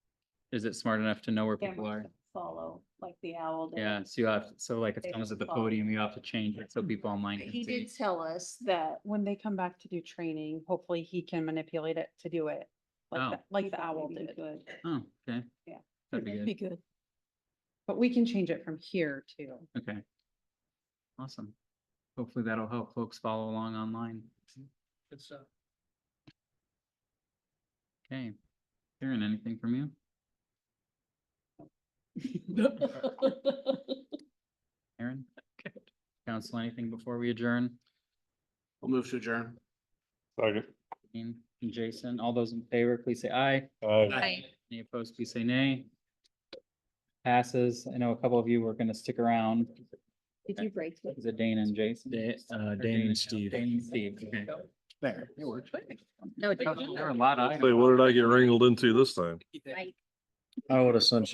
is it smart enough to know where people cameras are? that Follow, like the owl. did. Yeah, so you have, to- so like if They someone's at the follow. podium, you have to change it so people online can He see. did tell us that When they come back to do training, hopefully he can manipulate it to do it. Oh. Like, the- like the thought owl maybe we did. could. Oh, okay. Yeah. That'd be good. good. But we can change it from here too. Okay. Awesome. Hopefully that'll help folks follow along online. Good stuff. Okay. Karen, anything from you? Aaron? Council, anything before we adjourn? We'll move to adjourn. Second. Dean and Jason, all those in favor, please say aye. Aye. Aye. Any opposed, please say nay. Passes. I know a couple of you were gonna stick around. Did you break? it? Is it Dane and Jason? Da- uh, Or Dane and Steve. Dane and Steve, okay. There, it worked. There were a lot of Say, items. what did I get wrangled into this time? I would have sent